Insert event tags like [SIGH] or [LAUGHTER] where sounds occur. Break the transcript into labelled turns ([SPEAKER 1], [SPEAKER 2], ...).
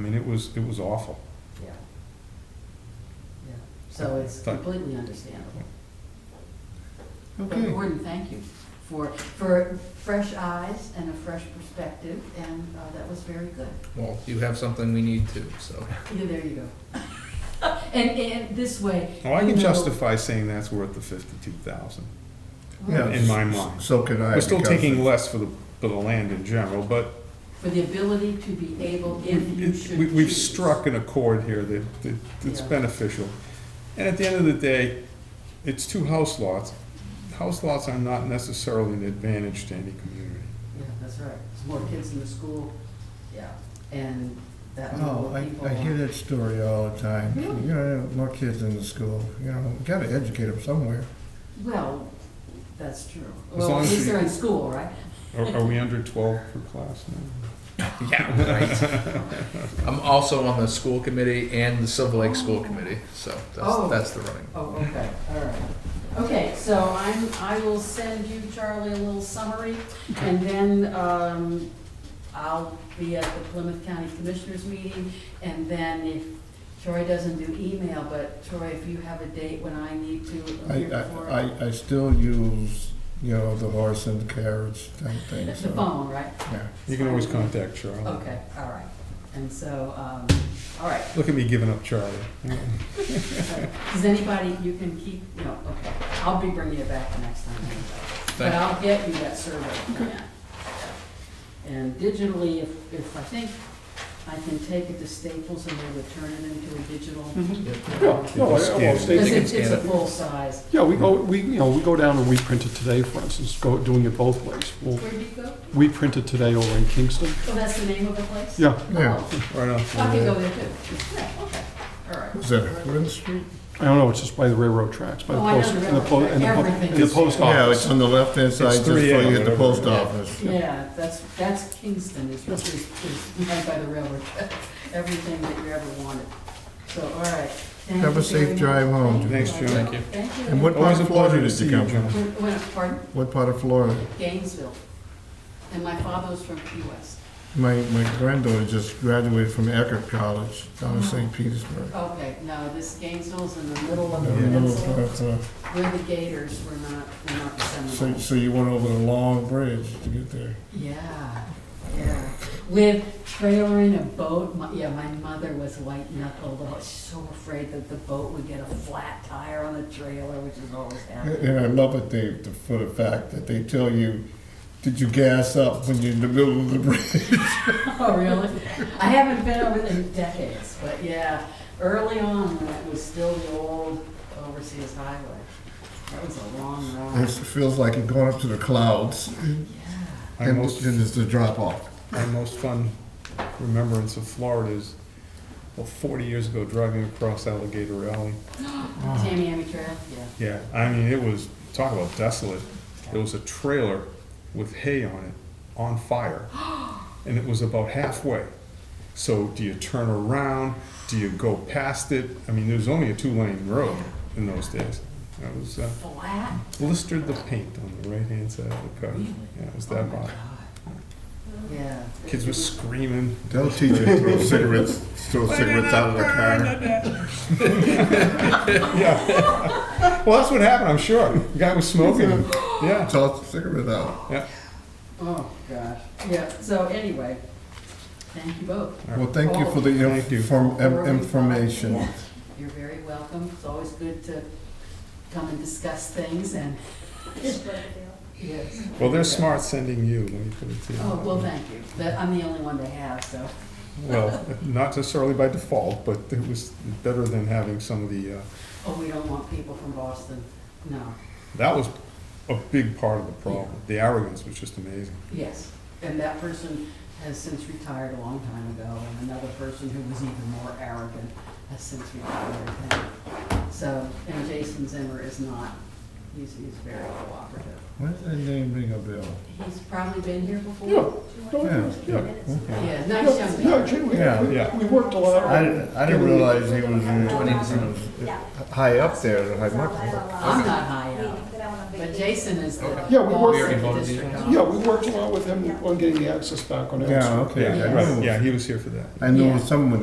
[SPEAKER 1] I mean, it was, it was awful.
[SPEAKER 2] Yeah. Yeah, so it's
[SPEAKER 1] Fine.
[SPEAKER 2] completely understandable. But
[SPEAKER 1] Okay,
[SPEAKER 2] Gordon, thank you for, for fresh eyes and a fresh perspective, and uh, that was very good.
[SPEAKER 3] Well, you have something we need too, so.
[SPEAKER 2] Yeah, there you go. [LAUGHS] And, and this way.
[SPEAKER 1] well, Oh, I
[SPEAKER 2] you
[SPEAKER 1] can
[SPEAKER 2] know-
[SPEAKER 1] justify saying that's worth the fifty-two thousand. in my mind.
[SPEAKER 4] So could I.
[SPEAKER 1] We're still
[SPEAKER 4] because
[SPEAKER 1] taking less for the, for the land in general, but
[SPEAKER 2] For the ability to be able, if you
[SPEAKER 1] it-
[SPEAKER 2] should
[SPEAKER 1] we, we've
[SPEAKER 2] choose.
[SPEAKER 1] struck an accord here that, that it's
[SPEAKER 2] Yeah.
[SPEAKER 1] beneficial. And at the end of the day, it's two house lots. House lots are not necessarily an advantage to any community.
[SPEAKER 2] Yeah, that's right. There's more kids in the school, yeah, and that
[SPEAKER 4] Oh,
[SPEAKER 2] will people.
[SPEAKER 4] I, I hear that story all the time.
[SPEAKER 2] Really?
[SPEAKER 4] You know, more kids in the school, you know, gotta educate them somewhere.
[SPEAKER 2] Well, that's true.
[SPEAKER 1] As
[SPEAKER 2] Well,
[SPEAKER 1] long
[SPEAKER 2] at
[SPEAKER 1] as
[SPEAKER 2] least
[SPEAKER 1] you-
[SPEAKER 2] they're in school, right?
[SPEAKER 1] Are, are we under twelve for class now?
[SPEAKER 3] Yeah, right. I'm also on the school committee and the Silver Lake School Committee, so
[SPEAKER 2] Oh.
[SPEAKER 3] that's, that's the running.
[SPEAKER 2] Oh, okay, all right. Okay, so I'm, I will send you, Charlie, a little summary, and then, um, I'll be at the Plymouth County Commissioners meeting, and then if, Troy doesn't do email, but Troy, if you have a date when I need to
[SPEAKER 4] I,
[SPEAKER 2] appear
[SPEAKER 4] I,
[SPEAKER 2] for
[SPEAKER 4] I, I still use, you know, the horse and carriage type thing,
[SPEAKER 2] the
[SPEAKER 4] so.
[SPEAKER 2] phone, right?
[SPEAKER 4] Yeah.
[SPEAKER 1] You can always contact Charlie.
[SPEAKER 2] Okay, all right. And so, um, all right,
[SPEAKER 1] Look at me giving up Charlie.
[SPEAKER 2] Does anybody, you can keep, no, okay, I'll be bringing it back the next time anyway. But
[SPEAKER 3] Thank you.
[SPEAKER 2] I'll get you that survey plan. And digitally, if, if I think I can take it to Staples and they would turn it into a digital.
[SPEAKER 5] Yeah, no, I-
[SPEAKER 1] Scan.
[SPEAKER 5] I won't state
[SPEAKER 2] Because
[SPEAKER 3] Mhm. They can
[SPEAKER 2] it's, it's
[SPEAKER 3] scan
[SPEAKER 2] a
[SPEAKER 3] it.
[SPEAKER 2] full size.
[SPEAKER 5] Yeah, we go, we, you know, we go down and we print it today, for instance, go, doing it both ways. Well,
[SPEAKER 2] Where'd you go?
[SPEAKER 5] we print it today over in Kingston.
[SPEAKER 2] Oh, that's the name of the place?
[SPEAKER 5] Yeah,
[SPEAKER 4] Yeah.
[SPEAKER 2] Oh,
[SPEAKER 1] Right on.
[SPEAKER 2] I could go there too. Yeah, okay, all right.
[SPEAKER 4] Is that Hooden Street?
[SPEAKER 5] I don't know, it's just by the railroad tracks, by the
[SPEAKER 2] Oh, I know
[SPEAKER 5] post.
[SPEAKER 2] the
[SPEAKER 5] and po-
[SPEAKER 2] railroad
[SPEAKER 5] and the po-
[SPEAKER 2] track.
[SPEAKER 5] And
[SPEAKER 2] Everything.
[SPEAKER 5] the post
[SPEAKER 4] Yeah, it's
[SPEAKER 5] office.
[SPEAKER 4] on the left-hand side, just
[SPEAKER 1] 3A
[SPEAKER 4] before you hit
[SPEAKER 1] or
[SPEAKER 4] the post
[SPEAKER 1] whatever.
[SPEAKER 4] office.
[SPEAKER 2] Yeah, that's, that's Kingston, is, is, is right by the railroad, [LAUGHS] track. everything that you ever wanted. So, all right. Thank
[SPEAKER 4] Have
[SPEAKER 2] you
[SPEAKER 4] a safe
[SPEAKER 2] very
[SPEAKER 4] drive
[SPEAKER 2] much.
[SPEAKER 4] home.
[SPEAKER 2] Thank
[SPEAKER 1] Thanks,
[SPEAKER 2] you.
[SPEAKER 1] Joan.
[SPEAKER 3] Thank you.
[SPEAKER 2] Thank you.
[SPEAKER 4] And what part
[SPEAKER 1] Always a
[SPEAKER 4] of Florida
[SPEAKER 1] pleasure to
[SPEAKER 4] did
[SPEAKER 1] see
[SPEAKER 4] you
[SPEAKER 1] you,
[SPEAKER 4] come from?
[SPEAKER 1] John.
[SPEAKER 2] Where- where- pardon,
[SPEAKER 4] What part of Florida?
[SPEAKER 2] Gainesville. And my father was from Key West.
[SPEAKER 4] My, my granddaughter just graduated from Eckerd College down in St. Petersburg.
[SPEAKER 2] Okay, no, this Gainesville's in the middle of the
[SPEAKER 4] Yeah, middle of
[SPEAKER 2] peninsula,
[SPEAKER 4] Florida.
[SPEAKER 2] where the Gators were not, were not the
[SPEAKER 4] So,
[SPEAKER 2] Seminoles.
[SPEAKER 4] so you went over the long bridge to get there?
[SPEAKER 2] Yeah, yeah. With trailer in a boat, my, yeah, my mother was white knuckled, I was so afraid that the boat would get a flat tire on the trailer, which is always happening.
[SPEAKER 4] And I love it, Dave, the- for the fact that they tell you, did you gas up when you're in the middle of the bridge?
[SPEAKER 2] [LAUGHS] Oh, really? I haven't been over there in decades, but yeah, early on, when it was still the old Overseas Highway, that was a long
[SPEAKER 4] [LAUGHS] It
[SPEAKER 2] ride.
[SPEAKER 4] feels like you're going up to the clouds,
[SPEAKER 2] Yeah,
[SPEAKER 1] I
[SPEAKER 4] and then
[SPEAKER 1] most-
[SPEAKER 4] there's the drop off.
[SPEAKER 1] my most fun remembrance of Florida is, well, 40 years ago, driving across Alligator Alley.
[SPEAKER 2] Tamiami Trail, yeah.
[SPEAKER 1] Yeah, I mean, it was, talk about desolate. It was a trailer with hay on it, on
[SPEAKER 2] [GASPS]
[SPEAKER 1] fire. And it was about halfway. So do you turn around? Do you go past it? I mean, there was only a two-lane road in those days. That was, uh,
[SPEAKER 2] Flat,
[SPEAKER 1] blistered the paint on the right-hand side of the car. Yeah, it was
[SPEAKER 2] oh
[SPEAKER 1] that
[SPEAKER 2] my
[SPEAKER 1] bad.
[SPEAKER 2] God. Yeah.
[SPEAKER 1] Kids were screaming.
[SPEAKER 4] They'll teach you to throw cigarettes, throw cigarettes out of the car.
[SPEAKER 1] Yeah. [LAUGHS] Well, that's what happened, I'm sure. The guy was smoking.
[SPEAKER 4] [LAUGHS]
[SPEAKER 1] Yeah.
[SPEAKER 4] Toss the cigarette out.
[SPEAKER 2] Oh, gosh, yeah, so anyway, thank you both.
[SPEAKER 4] Well, thank you for the
[SPEAKER 1] Thank you.
[SPEAKER 4] inform- em- information.
[SPEAKER 2] You're very welcome. It's always good to come and discuss things and. Yes.
[SPEAKER 1] Well, they're smart sending you, let me put it to you.
[SPEAKER 2] Oh, well, thank you. That, I'm the only one they have, so.
[SPEAKER 1] Well, not necessarily by default, but it was better than having some of the, uh,
[SPEAKER 2] Oh, we don't want people from Boston. No,
[SPEAKER 1] that was a big part of the problem. The arrogance was just amazing.
[SPEAKER 2] yes. And that person has since retired a long time ago, and another person who was even more arrogant has since retired. And So, and Jason Zimmer is not, he's, he's very cooperative.
[SPEAKER 4] Why does that name ring a bell?
[SPEAKER 2] He's probably been here before.
[SPEAKER 4] Yeah.
[SPEAKER 2] Yeah, nice young man.
[SPEAKER 5] Yeah, Jim, we,
[SPEAKER 4] Yeah.
[SPEAKER 1] Yeah.
[SPEAKER 5] we we worked a lot.
[SPEAKER 4] I didn't, I didn't realize he was,
[SPEAKER 3] Twenty to zero.
[SPEAKER 4] uh, high up there, high much.
[SPEAKER 2] I'm not high up.
[SPEAKER 6] But I wanna be
[SPEAKER 2] But Jason is the
[SPEAKER 3] Okay.
[SPEAKER 5] Yeah, we
[SPEAKER 2] boss
[SPEAKER 5] work-
[SPEAKER 2] of the
[SPEAKER 3] Voted
[SPEAKER 2] district.
[SPEAKER 3] it.
[SPEAKER 5] Yeah, we worked a lot with him on getting the access back on Elm Street.
[SPEAKER 4] Yeah, okay. I
[SPEAKER 1] Right,
[SPEAKER 4] know-
[SPEAKER 1] yeah, he was here for that.
[SPEAKER 4] I know someone